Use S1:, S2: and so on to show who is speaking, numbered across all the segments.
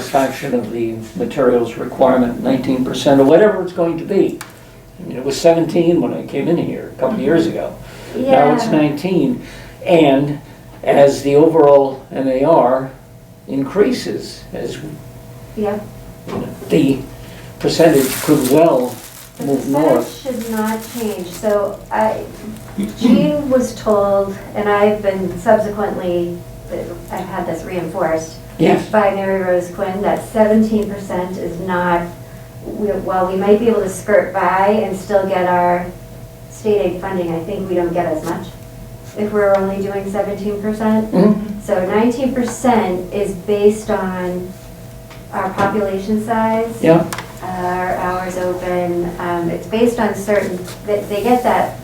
S1: satisfaction of the materials requirement, nineteen percent or whatever it's going to be. I mean, it was seventeen when I came in here a couple of years ago. Now it's
S2: Yeah,
S1: nineteen, and as the overall MAR increases, as
S2: yeah.
S1: the percentage could well
S2: The
S1: move north.
S2: percentage should not change, so I, Jean was told, and I've been subsequently, I've had this reinforced
S1: Yes,
S2: by Mary Rose Quinn, that seventeen percent is not, we- while we might be able to skirt by and still get our state aid funding, I think we don't get as much if we're only doing seventeen percent.
S1: Mhm.
S2: So nineteen percent is based on our population size.
S1: yeah,
S2: our hours open, um, it's based on certain, they, they get that,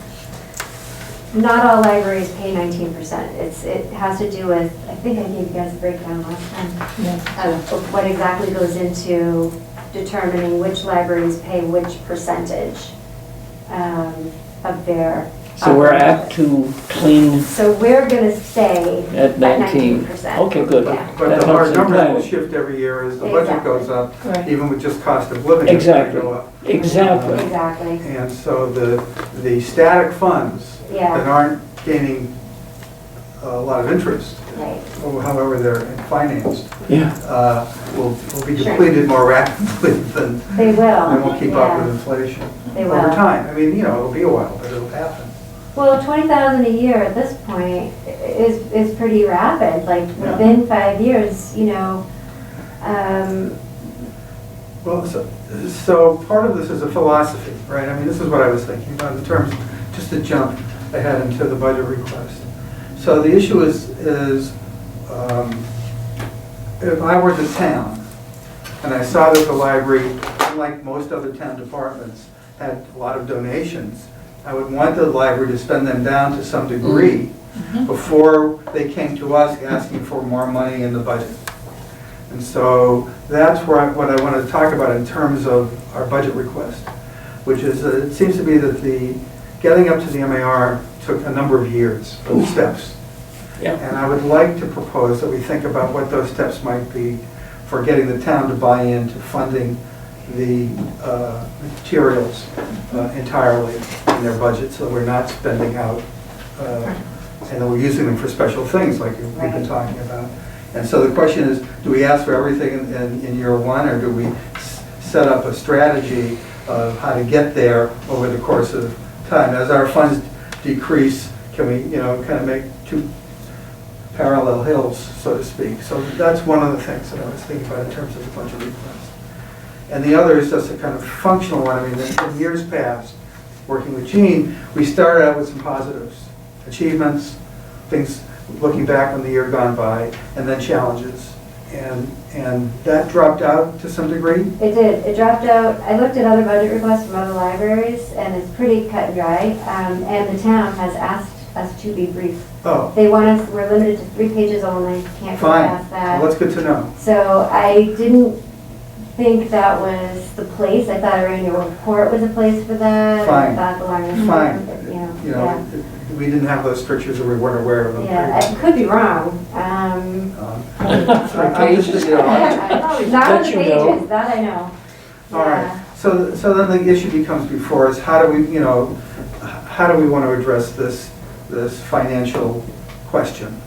S2: not all libraries pay nineteen percent, it's, it has to do with, I think I gave you guys a breakdown last time, of of what exactly goes into determining which libraries pay which percentage, um, of their.
S1: so we're
S2: Uh,
S1: apt to clean
S2: So we're gonna stay
S1: at
S2: at nineteen
S1: nineteen.
S2: percent.
S1: Okay, good.
S3: But
S1: That
S3: the hard
S1: helps in
S3: number will
S1: planning.
S3: shift every year as the budget
S2: Exactly.
S3: goes up,
S4: Right.
S3: even with just cost of living. it's gonna
S1: Exactly.
S3: go up.
S1: Exactly.
S2: Exactly,
S3: And so the, the static funds that
S2: yeah,
S3: aren't gaining a lot of interest,
S2: right,
S3: or however they're financed,
S1: Yeah,
S3: uh, will will be
S2: Sure.
S3: depleted more rapidly than,
S2: they will,
S3: than will keep up with
S2: yeah,
S3: inflation.
S2: they will.
S3: Over time, I mean, you know, it'll be a while, but it'll happen.
S2: Well, twenty thousand a year at this point i- is, is pretty rapid, like
S3: Yeah.
S2: within five years, you know. Um,
S3: Well, so, so part of this is a philosophy, right? I mean, this is what I was thinking about in terms, just to jump ahead into the budget request. So the issue is, is um, if I were the town and I saw that the library, unlike most other town departments, had a lot of donations, I would want the library to spend them down to some degree before they came to us asking for more money in the budget. And so that's where I, what I want to talk about in terms of our budget request, which is, uh, it seems to be that the, getting up to the MAR took a number of years for the steps.
S1: yeah,
S3: And I would like to propose that we think about what those steps might be for getting the town to buy into funding the uh, materials uh, entirely in their budget, so we're not spending out, uh, and that we're using them for special things like we've been
S2: Right.
S3: talking about. And so the question is, do we ask for everything in- in, in year one, or do we s- set up a strategy of how to get there over the course of time? As our funds decrease, can we, you know, kind of make two parallel hills, so to speak. So that's one of the things that I was thinking about in terms of the budget request. And the other is just a kind of functional one. I mean, in years past, working with Gene, we started out with some positives, achievements, things, looking back on the year gone by, and then challenges. And, and that dropped out to some degree.
S2: it did, it dropped out, I looked at other budget requests from other libraries, and it's pretty cut and dry, um, and the town has asked us to be brief.
S3: Oh,
S2: They want us, we're limited to three pages only, can't go
S3: fine.
S2: past
S3: Well,
S2: that.
S3: that's good to know.
S2: So I didn't think that was the place, I thought our annual report was a place for that.
S3: Fine.
S2: I thought the library.
S3: Fine.
S2: You know,
S3: You
S2: yeah.
S3: know, we didn't have those strictures or we weren't aware of them.
S2: Yeah, I could be wrong. Um,
S3: Um,
S1: Okay,
S3: I'm just, you know, I'm-
S2: Not on the
S1: That you know.
S2: pages, that I know.
S3: All right, so, so then the issue becomes before us, how do we, you know, h- how do we want to address this, this financial question?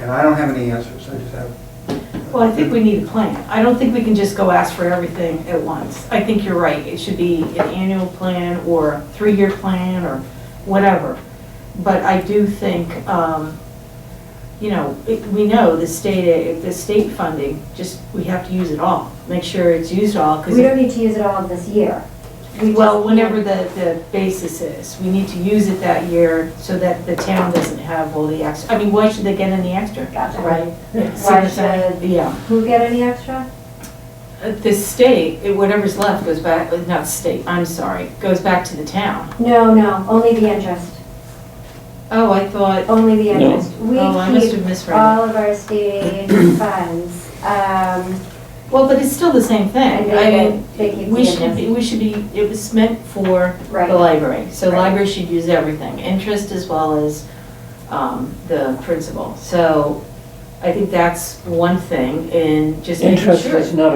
S3: And I don't have any answers, I just have.
S4: Well, I think we need a plan. I don't think we can just go ask for everything at once. I think you're right, it should be an annual plan or a three-year plan or whatever. But I do think, um, you know, it- we know the state, the state funding, just, we have to use it all. Make sure it's used all,
S2: We
S4: because,
S2: don't need to use it all this year. We just-
S4: well, whenever the, the basis is, we need to use it that year so that the town doesn't have all the extra. I mean, why should they get any extra?
S2: Gotcha.
S4: Why
S2: should-
S4: Yeah.
S2: Who get any extra?
S4: At The Uh, state, it- whatever's left goes back, uh, not state, I'm sorry, goes back to the town.
S2: No, no, only the interest,
S4: Oh, I thought,
S2: only the
S1: No.
S2: interest. We
S4: oh, I must
S2: keep
S4: have misread. it.
S2: all of our state aid funds. Um,
S4: Well, but it's still the same
S2: And
S4: thing.
S2: they
S4: I
S2: get-
S4: mean,
S2: they keep
S4: we
S2: the
S4: should, be- we should be, it was meant for the
S2: Right,
S4: library. So
S2: Right.
S4: library should use everything, interest as well as um, the principal. So I think that's one thing, and just making sure.
S1: Interest is not a